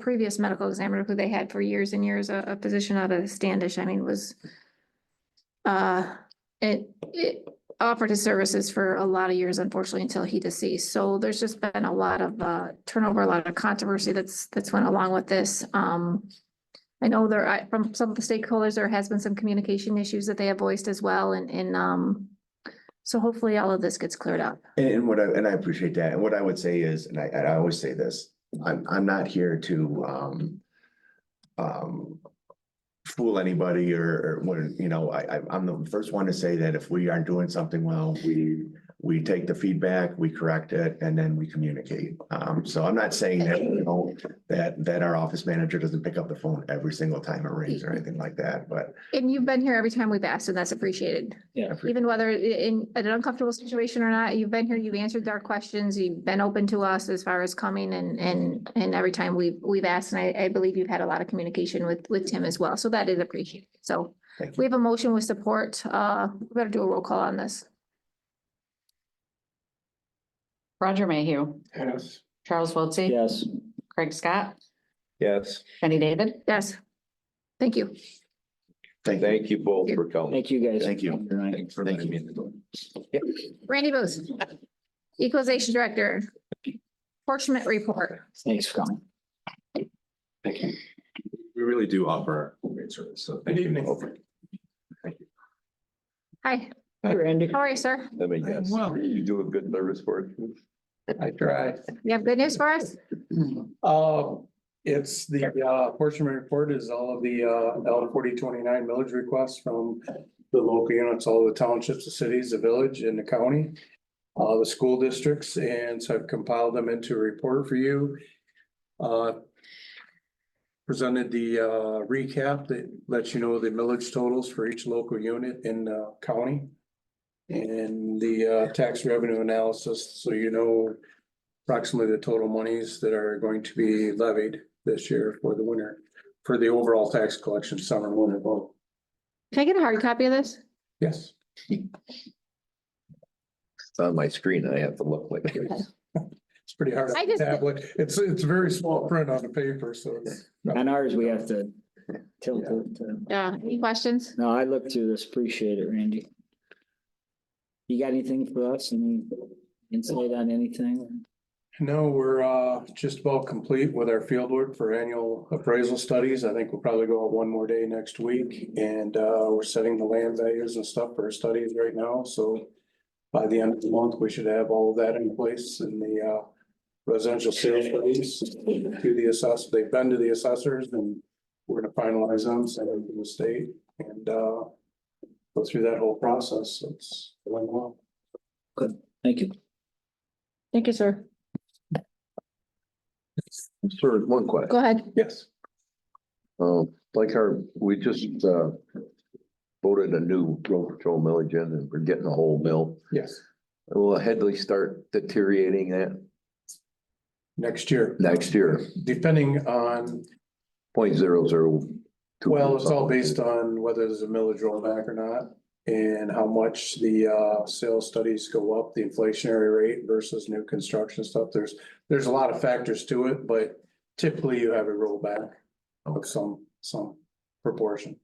previous medical examiner who they had for years and years, a, a physician out of Standish, I mean, was uh, it, it offered his services for a lot of years, unfortunately, until he deceased. So there's just been a lot of uh, turnover, a lot of controversy that's, that's went along with this. Um, I know there, I, from some of the stakeholders, there has been some communication issues that they have voiced as well and, and um, so hopefully all of this gets cleared up. And, and what I, and I appreciate that. And what I would say is, and I, and I always say this, I'm, I'm not here to, um, um, fool anybody or, or when, you know, I, I, I'm the first one to say that if we aren't doing something well, we, we take the feedback, we correct it, and then we communicate. Um, so I'm not saying that, you know, that, that our office manager doesn't pick up the phone every single time it rings or anything like that, but And you've been here every time we've asked and that's appreciated. I appreciate even whether i- in an uncomfortable situation or not, you've been here, you've answered our questions, you've been open to us as far as coming and, and, and every time we've, we've asked, and I, I believe you've had a lot of communication with, with Tim as well, so that is appreciated. So Thank you. we have a motion with support, uh, we better do a roll call on this. Roger Mayhew. Yes. Charles Wiltie. Yes. Craig Scott. Yes, Jenny David. Yes. Thank you. Thank you. thank you both for coming. Thank you guys. Thank you. Good night. Thanks for letting me in the door. Randy Booth. Equalization Director. Apportionment Report. Thanks for coming. Thank you. We really do offer great service, so thank you. Hi, Hi, Randy. how are you, sir? I mean, yes, you do a good service for it. I try. You have good news for us? Uh, it's the, uh, apportionment report is all of the, uh, L forty twenty-nine millage requests from the local units, all the townships, the cities, the village and the county, uh, the school districts, and so I've compiled them into a report for you. Uh, presented the, uh, recap that lets you know the millage totals for each local unit in, uh, county. And the, uh, tax revenue analysis, so you know approximately the total monies that are going to be levied this year for the winter, for the overall tax collection summer winter vote. Can I get a hard copy of this? Yes. It's on my screen and I have to look like this. It's pretty hard I on the just- tablet. It's, it's very small print on the paper, so it's. On ours, we have to tilt it. to- Yeah, Uh, any questions? No, I looked through this. Appreciate it, Randy. You got anything for us? Any insight on anything? No, we're uh just about complete with our field work for annual appraisal studies. I think we'll probably go out one more day next week. And uh we're setting the land values and stuff for our studies right now, so. By the end of the month, we should have all of that in place and the uh residential sales studies to the assess, they've been to the assessors and. We're gonna finalize them, send them to the state and uh go through that whole process. It's going well. Thank you. Thank you, sir. Sir, one question. Go ahead. Yes. Um, like our, we just, uh, voted a new road patrol millage in and we're getting a whole mill. Yes, Will Headley start deteriorating that next year, next year? depending on Point zero zero two. Well, it's all based on whether there's a millage rollback or not and how much the uh sales studies go up, the inflationary rate versus new construction stuff. There's, there's a lot of factors to it, but typically you have a rollback of some, some proportion.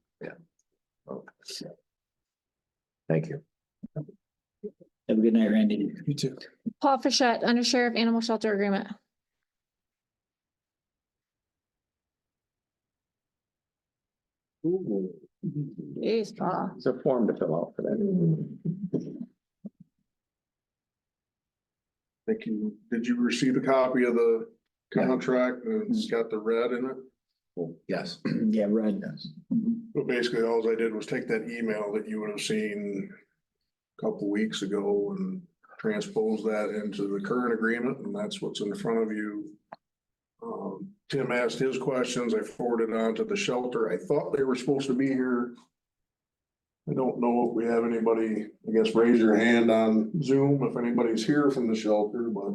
Thank you. Have a good night, Randy. You too. Paul Fischett, Under Sheriff, Animal Shelter Agreement. Jeez, Paul. It's a form to fill out for that. Thank you. Did you receive a copy of the contract? and It's got the red in it. Yes. Yeah, Red. But basically, all I did was take that email that you would have seen a couple weeks ago and transpose that into the current agreement, and that's what's in front of you. Um, Tim asked his questions. I forwarded on to the shelter. I thought they were supposed to be here. I don't know if we have anybody, I guess, raise your hand on Zoom if anybody's here from the shelter, but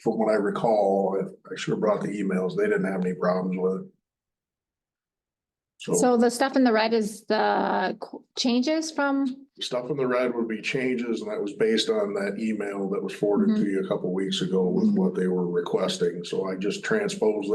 from what I recall, I- I should have brought the emails. They didn't have any problems with it. So So the stuff in the red is the qu- changes from, stuff in the red would be changes and that was based on that email that was forwarded to you a couple weeks ago with what they were requesting. So I just transposed